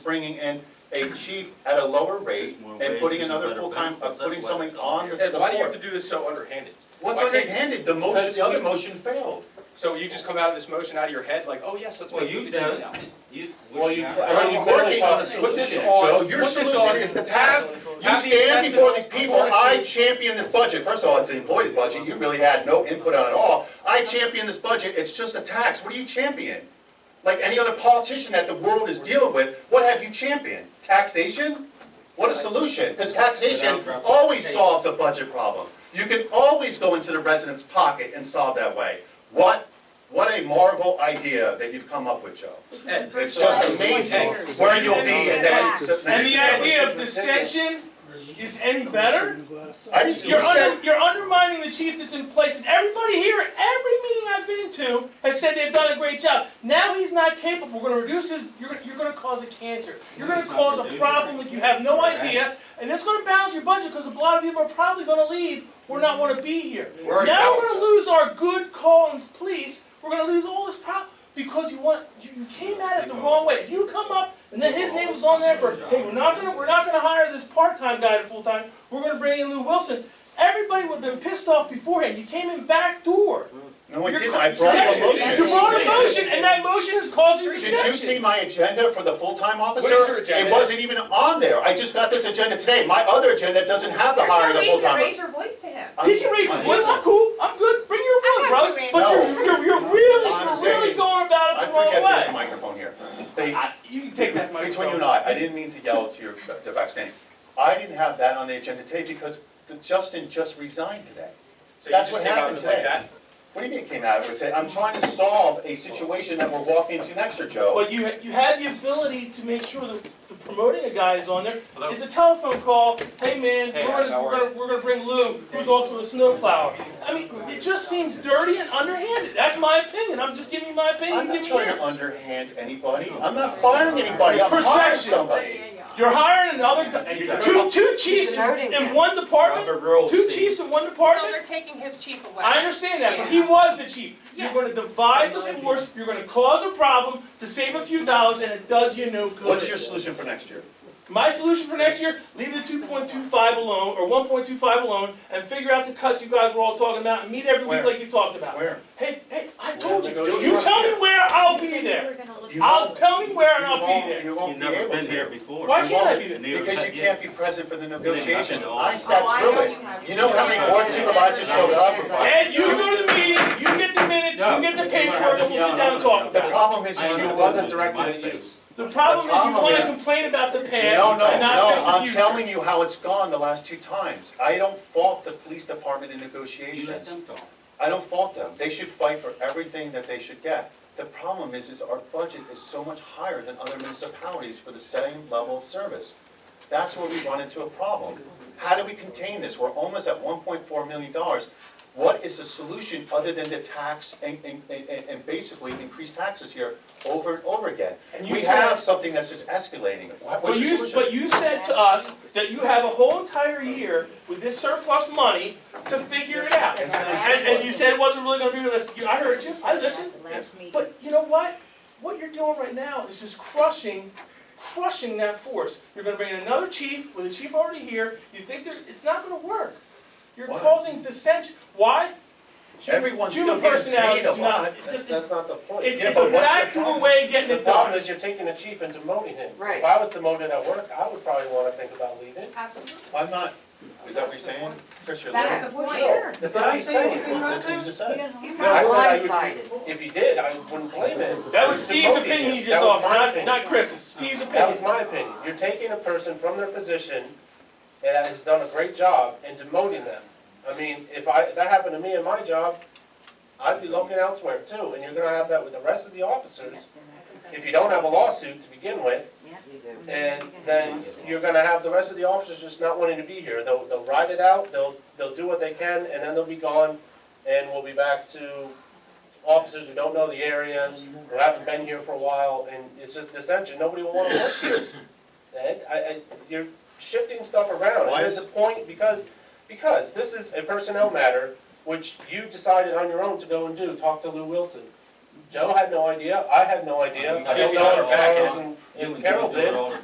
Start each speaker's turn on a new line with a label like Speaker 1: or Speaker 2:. Speaker 1: bringing in a chief at a lower rate
Speaker 2: More
Speaker 1: and putting
Speaker 2: wages and
Speaker 1: another
Speaker 2: better
Speaker 1: full-time, uh,
Speaker 2: benefits, that's
Speaker 1: putting
Speaker 2: why
Speaker 1: someone
Speaker 2: it's on
Speaker 1: on the
Speaker 3: And
Speaker 1: the
Speaker 3: why do you have to
Speaker 1: board.
Speaker 3: do this so underhanded?
Speaker 1: What's
Speaker 3: Why can't-
Speaker 1: underhanded? The motion,
Speaker 3: Because-
Speaker 1: the other motion failed.
Speaker 3: So you just come out of this motion out of your head like, oh yes, let's
Speaker 2: Well,
Speaker 3: make
Speaker 2: you
Speaker 3: the change
Speaker 2: don't,
Speaker 3: now.
Speaker 2: you.
Speaker 4: Well, you-
Speaker 2: Yeah.
Speaker 4: I mean,
Speaker 1: I'm
Speaker 4: you clearly
Speaker 1: working on a
Speaker 4: talked-
Speaker 3: put this
Speaker 1: solution,
Speaker 3: on-
Speaker 1: Joe. Your
Speaker 3: put this
Speaker 1: solution
Speaker 3: on-
Speaker 1: is the task. You
Speaker 3: have the
Speaker 1: stand
Speaker 3: intestine-
Speaker 1: before these
Speaker 3: I'm
Speaker 1: people,
Speaker 3: going to-
Speaker 1: I champion this budget. First of all, it's the employees' budget. You really had no input on it at all. I champion this budget. It's just a tax. What do you champion? Like any other politician that the world is dealing with, what have you championed? Taxation? What a solution, because taxation always solves a budget problem. You can always go into the resident's pocket and solve that way. What, what a marvel idea that you've come up with, Joe.
Speaker 3: And-
Speaker 1: It's just amazing where you'll be in that.
Speaker 5: And the idea of dissension is any better?
Speaker 1: I didn't, you
Speaker 5: You're,
Speaker 1: said,
Speaker 5: under, you're undermining the chief that's in place, and everybody here, at every meeting I've been to, has said they've done a great job. Now he's not capable. We're going to reduce his. You're, gonna- you're going to cause a cancer. You're going to
Speaker 2: He's not
Speaker 5: cause a
Speaker 2: reducing
Speaker 5: problem
Speaker 2: it.
Speaker 5: that you have no
Speaker 2: Right.
Speaker 5: idea, and it's going to balance your budget because a lot of people are probably going to leave or not want to be here.
Speaker 1: We're
Speaker 5: now
Speaker 1: balanced.
Speaker 5: we're going to lose our good call and police. We're going to lose all this problem because you want you, you came at it the wrong way. If you come up and then his name was on there for, hey, we're not gonna we're not gonna hire this part-time guy to full-time. We're gonna bring in Lou Wilson. Everybody would have been pissed off beforehand. You came in back door.
Speaker 1: no, I
Speaker 5: You're
Speaker 1: didn't,
Speaker 5: co-
Speaker 1: I brought
Speaker 5: Yes,
Speaker 1: a
Speaker 5: You brought a
Speaker 1: motion.
Speaker 5: motion, and that motion is causing
Speaker 1: Did you see
Speaker 5: dissension.
Speaker 1: my agenda for the full-time officer?
Speaker 3: What is your agenda?
Speaker 1: It wasn't even on there, I just got this agenda today, my other agenda doesn't have the
Speaker 6: There's no
Speaker 1: hiring of
Speaker 6: reason to
Speaker 1: full-time.
Speaker 6: Raise your voice to him.
Speaker 1: I'm-
Speaker 5: He can raise his voice. I'm cool. I'm good. Bring your wood,
Speaker 6: got
Speaker 5: bro.
Speaker 6: you, Andy.
Speaker 5: But you're, you're, you're really,
Speaker 1: I'm
Speaker 5: you're really
Speaker 1: saying-
Speaker 5: going about
Speaker 1: I
Speaker 5: it the wrong
Speaker 1: forget there's a
Speaker 5: way.
Speaker 1: microphone here. They,
Speaker 5: I- You can take that microphone.
Speaker 1: between you and I, I didn't mean to yell to your, to backstage. I didn't have that on the agenda today because Justin just resigned today.
Speaker 3: So you
Speaker 1: That's
Speaker 3: just
Speaker 1: what
Speaker 3: came out
Speaker 1: happened
Speaker 3: of it like
Speaker 1: today.
Speaker 3: that?
Speaker 1: What do you mean it came out of it today? I'm trying to solve a situation that we're walking into next year, Joe.
Speaker 5: But you, you have the ability to make sure that the promoting a guy is on there.
Speaker 2: Hello?
Speaker 5: It's a telephone call, hey man,
Speaker 3: Hey,
Speaker 5: we're gonna,
Speaker 3: how
Speaker 5: we're
Speaker 3: are
Speaker 5: gonna, we're gonna bring Lou, who's also a snowplower. I mean, it just seems dirty and underhanded, that's my opinion, I'm just giving you my opinion,
Speaker 1: I'm not
Speaker 5: giving
Speaker 1: trying to
Speaker 5: you.
Speaker 1: underhand anybody. I'm not firing anybody. I'm hiring
Speaker 5: Perception.
Speaker 1: somebody.
Speaker 5: You're hiring another, guy- and you're- two, two chiefs in in one department,
Speaker 2: Robert Rules,
Speaker 5: two
Speaker 2: Steve.
Speaker 5: chiefs in one
Speaker 6: Well,
Speaker 5: department?
Speaker 6: they're taking his chief away.
Speaker 5: I understand that, but he was the chief. You're
Speaker 6: Yeah.
Speaker 5: gonna divide the force, you're gonna cause a problem to save a few dollars, and it does you no good.
Speaker 1: What's your solution for next year?
Speaker 5: My solution for next year, leave the two point two five alone, or one point two five alone, and figure out the cuts you guys were all talking about, and meet every
Speaker 1: Where?
Speaker 5: week like you talked about.
Speaker 1: Where?
Speaker 5: Hey, hey, I told you,
Speaker 1: negotiate.
Speaker 5: you tell me where, I'll be there.
Speaker 1: You
Speaker 5: I'll,
Speaker 1: won't.
Speaker 5: tell me where and
Speaker 1: You
Speaker 5: I'll
Speaker 1: won't-
Speaker 5: be there.
Speaker 1: You won't
Speaker 2: You've
Speaker 1: be
Speaker 2: never
Speaker 1: able
Speaker 2: been here
Speaker 1: to.
Speaker 2: before.
Speaker 5: Why can't I
Speaker 1: won't.
Speaker 5: be
Speaker 2: And
Speaker 5: there?
Speaker 2: neither
Speaker 1: Because you
Speaker 2: have
Speaker 1: can't be present for the negotiations.
Speaker 2: Yeah.
Speaker 1: I sat
Speaker 6: Oh, I
Speaker 1: through
Speaker 6: know
Speaker 1: it.
Speaker 6: you have.
Speaker 1: You know how many board supervisors showed up?
Speaker 5: Ed, you go to the meeting, you get the minutes, you get the paperwork, and we'll sit down and talk
Speaker 1: The
Speaker 5: about it.
Speaker 1: problem is, is you wasn't directed at you.
Speaker 5: The problem is you
Speaker 1: problem
Speaker 5: wanna
Speaker 1: is-
Speaker 5: complain about the past and
Speaker 1: No, no,
Speaker 5: not
Speaker 1: no,
Speaker 5: fix the
Speaker 1: I'm
Speaker 5: future.
Speaker 1: telling you how it's gone the last two times. I don't fault the police department in
Speaker 2: You let
Speaker 1: negotiations.
Speaker 2: them talk.
Speaker 1: I don't fault them. They should fight for everything that they should get. The problem is, is our budget is so much higher than other municipalities for the same level of service. That's where we run into a problem. How do we contain this? We're almost at one point four million dollars. What is the solution other than to tax and, and, and, and basically increase taxes here over and over again?
Speaker 5: And you
Speaker 1: We
Speaker 5: said-
Speaker 1: have something that's just escalating. What-
Speaker 5: But
Speaker 1: What's your
Speaker 5: you,
Speaker 1: solution?
Speaker 5: but you said to us that you have a whole entire year with this surplus money to figure it out.
Speaker 1: It's not
Speaker 5: And, and you said it wasn't really gonna be realistic, You- I heard you, I listened, but you know what? What you're doing right now is just crushing, crushing that force. You're gonna bring in another chief, with a chief already here, you think that, it's not gonna work. You're
Speaker 1: Why?
Speaker 5: causing dissension, why? Human-
Speaker 1: Everyone's
Speaker 5: human
Speaker 1: still getting
Speaker 5: personalities
Speaker 1: paid a
Speaker 5: do not-
Speaker 1: lot.
Speaker 5: it
Speaker 1: That's,
Speaker 5: just-
Speaker 1: that's not the point.
Speaker 5: It-
Speaker 1: Yeah,
Speaker 5: It's
Speaker 1: but
Speaker 5: a
Speaker 1: what's the
Speaker 5: backdoor
Speaker 1: problem?
Speaker 5: way of getting
Speaker 7: The
Speaker 5: it done.
Speaker 7: problem is you're taking a chief and demoting him.
Speaker 6: Right.
Speaker 7: If I was demoted at work, I would probably wanna think about leaving.
Speaker 6: Absolutely.
Speaker 1: I'm not, is that what you're saying? Chris, you're
Speaker 6: That's
Speaker 1: looking.
Speaker 6: the point.
Speaker 7: It's not me saying it.
Speaker 1: That's what you just said.
Speaker 7: No, I said I would, if he did, I wouldn't blame him.
Speaker 5: That was
Speaker 7: He's
Speaker 5: Steve's
Speaker 7: demoting
Speaker 5: opinion
Speaker 7: him.
Speaker 5: he
Speaker 7: That
Speaker 5: just
Speaker 7: was
Speaker 5: offered,
Speaker 7: my
Speaker 5: not,
Speaker 7: opinion.
Speaker 5: not Chris's, Steve's
Speaker 7: That
Speaker 5: opinion.
Speaker 7: was my opinion. You're taking a person from their position and that has done a great job and demoting them. I mean, if I, if that happened to me in my job, I'd be looking elsewhere too, and you're gonna have that with the rest of the officers. If you don't have a lawsuit to begin with, And then you're gonna have the rest of the officers just not wanting to be here. They'll, they'll ride it out, they'll, they'll do what they can, and then they'll be gone. And we'll be back to officers who don't know the area, who haven't been here for a while, and it's just dissension, nobody will wanna work here. Ed, I, I, you're shifting stuff around,
Speaker 1: Why
Speaker 7: and there's
Speaker 1: is-
Speaker 7: a point, because, because this is a personnel matter, which you decided on your own to go and do, talk to Lou Wilson. Joe had no idea, I had no idea, I don't know if Charles and- and Carol did.